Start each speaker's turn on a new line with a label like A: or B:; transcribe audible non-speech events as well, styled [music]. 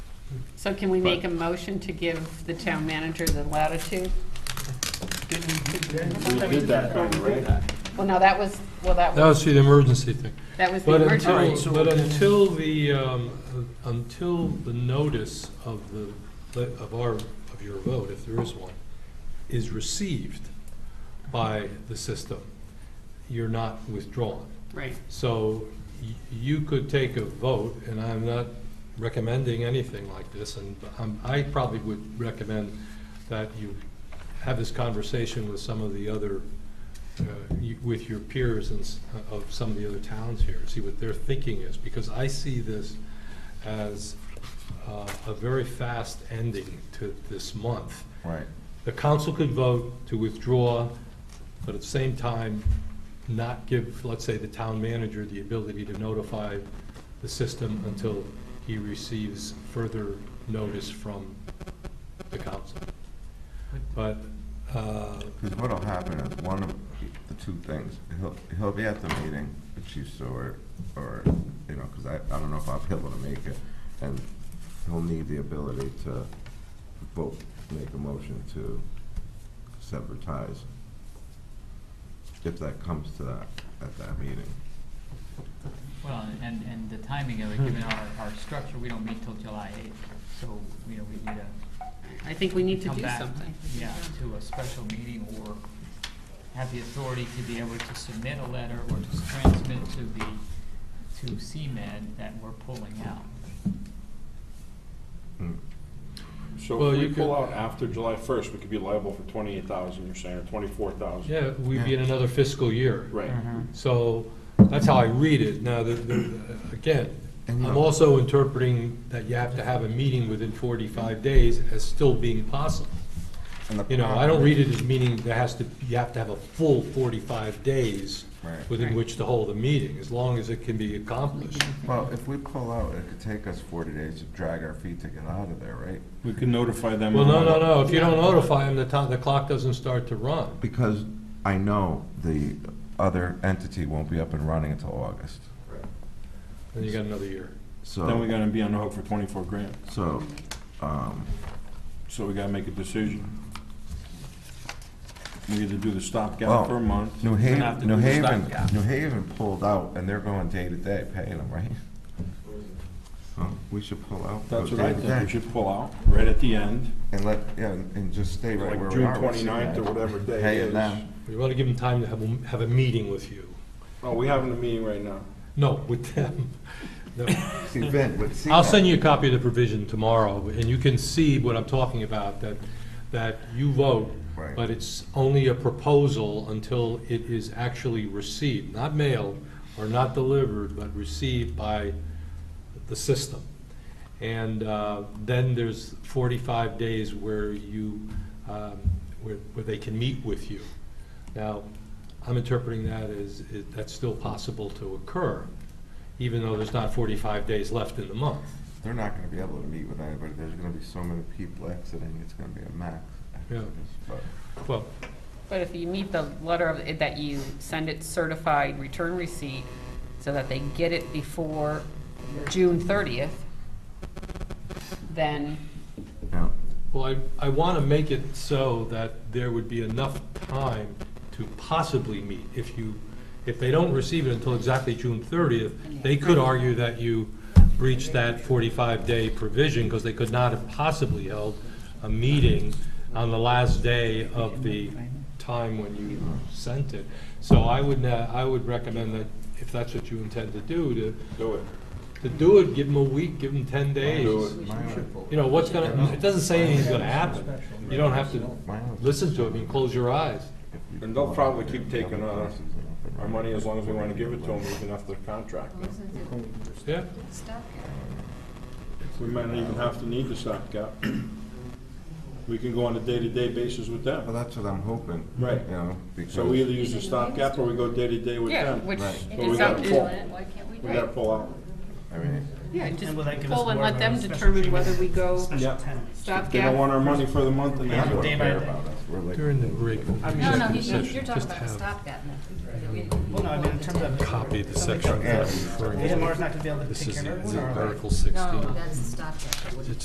A: So can we
B: But-
A: make a motion to give the town manager the latitude?
B: We did that kind of, right?
A: Well, no, that was, well, that
C: That
A: was,
C: was the emergency thing.
A: that was the
C: But
A: emergency.
C: until, but until the, um, until the notice of the, of our, of your vote, if there is one, is received by the system, you're not withdrawn.
A: Right,
C: So y- you could take a vote, and I'm not recommending anything like this, and um, I probably would recommend that you have this conversation with some of the other, uh, you- with your peers and s- uh, of some of the other towns here, see what their thinking is, because I see this as uh, a very fast ending to this month.
B: Right.
C: The council could vote to withdraw, but at the same time, not give, let's say, the town manager the ability to notify the system until he receives further notice from the council. But, uh,
D: Because what'll happen is one of the two things, he'll, he'll be at the meeting, the chief steward, or, you know, because I, I don't know if I'll be able to make it, and he'll need the ability to vote, make a motion to sever ties, if that comes to that, at that meeting.
E: Well, and, and the timing of it, given our, our structure, we don't meet till July eighth, so, you know, we need to
A: I think we need to
E: come
A: do
E: back,
A: something.
E: yeah, to a special meeting or have the authority to be able to submit a letter or to transmit to the, to CMed that we're pulling out.
D: Mm.
B: So
C: Well,
B: if we
C: you
B: pull
C: could-
B: out after July first, we could be liable for twenty-eight thousand, you're saying, or twenty-four thousand.
C: yeah, we'd be in another fiscal year.
B: Right.
D: Mm-hmm.
C: Mm-hmm. So that's how I read it. Now, the- the- again,
D: And,
C: I'm
D: uh,
C: also interpreting that you have to have a meeting within 45 days as still being possible.
D: And the
C: You know, I don't
D: problem-
C: read it as meaning there has to, you have to have a full 45 days
D: Right.
C: within
A: Right.
C: which to hold a meeting, as long as it can be accomplished.
D: Well, if we pull out, it could take us forty days to drag our feet to get out of there, right?
B: We can notify them.
C: Well, no, no, no, if you don't notify them, the time, the clock doesn't start to run.
D: Because I know the other entity won't be up and running until August,
C: Then you got another year.
D: so.
B: Then we gotta be on the hook for twenty-four grand,
D: So, um,
B: so we gotta make a decision. We either do the
D: Well,
B: stopgap for a month.
D: New
B: have to
D: Haven, New
B: do the
D: Haven,
B: stopgap.
D: New Haven pulled out, and they're going day to day paying them, right? So we should pull out. go
B: That's what
D: day
B: I
D: to
B: think, we
D: day,
B: should pull out, right at the end,
D: And let, yeah, and and just stay right
B: Like
D: where we
B: June
D: are. with
B: 29th or
D: CMed,
B: whatever day it
D: paying
B: is.
D: them.
C: You want to give them time to have, a- have a meeting with you.
B: oh, we having a meeting right now.
C: No, with them. No.
B: [laughs]
D: See, Vin, with CMed.
C: I'll send you a copy of the provision tomorrow, and you can see what I'm talking about, that, that you vote,
D: Right.
C: but it's only a proposal until it is actually received, not mailed or not delivered, but received by the system. And uh, then there's 45 days where you, um, where where they can meet with you. Now, I'm interpreting that as, is- that's still possible to occur, even though there's not 45 days left in the month.
D: They're not gonna be able to meet with anybody, there's gonna be so many people exiting, it's gonna be a max.
C: Yeah.
D: exodus, but-
C: Well,
A: But if you meet the letter of, that you send it certified return receipt, so that they get it before June thirtieth, then,
D: Yeah,
C: well, I, I want to make it so that there would be enough time to possibly meet. If you, if they don't receive it until exactly June 30th, they could argue that you breached that 45-day provision because they could not have possibly held a meeting on the last day of the time when you sent it. So I would, uh, I would recommend that, if that's what you intend to do, to,
B: Do it.
C: to do it, give them a week, give them 10 days.
B: Do it.
C: You know, what's gonna, it doesn't say anything's gonna happen. You don't have to
D: mine was-
C: listen to it, you can close your eyes.
D: if we
B: And they'll
D: pull out,
B: probably
D: they'll
B: keep
D: be
B: taking,
D: other
B: uh,
D: places and up and
B: Our
D: running.
B: money, as long as we wanna give it to them, even after the contract.
C: Yeah,
B: We might not even have to need the stopgap. We can go on a day-to-day basis with
D: Well,
B: them.
D: that's what I'm hoping.
B: Right.
D: You know, because.
B: So we either use the stopgap or we go day-to-day with
A: yeah,
B: them.
A: which
D: Right.
A: is
B: But we
A: up
B: gotta
A: to-
B: pull.
F: Why can't we do
B: We
F: it?
B: gotta pull out.
D: I mean,
A: Yeah, just
G: And will that give us
A: pull and
G: more
A: let
G: of
A: them
G: a special
A: determine
G: treatment?
A: whether we go
B: Yeah.
G: Special tenant.
B: They don't
A: stopgap.
B: want our money for the month and
D: they
B: half.
D: don't
G: Day by
D: care
G: day.
D: about us. We're like.
C: during the break.
F: No, no,
C: executive
F: you-
C: session,
F: you're talking
C: just
F: about the
C: have
F: stopgap.
G: Well, no, I mean, in terms of.
C: Copy the section
D: Yeah.
C: that's referring to.
G: AMR is not gonna be able to
C: This
G: take
C: is
G: care of
C: in
G: everyone, or?
C: Article
F: No,
C: 16.
F: that's the stopgap. that wouldn't-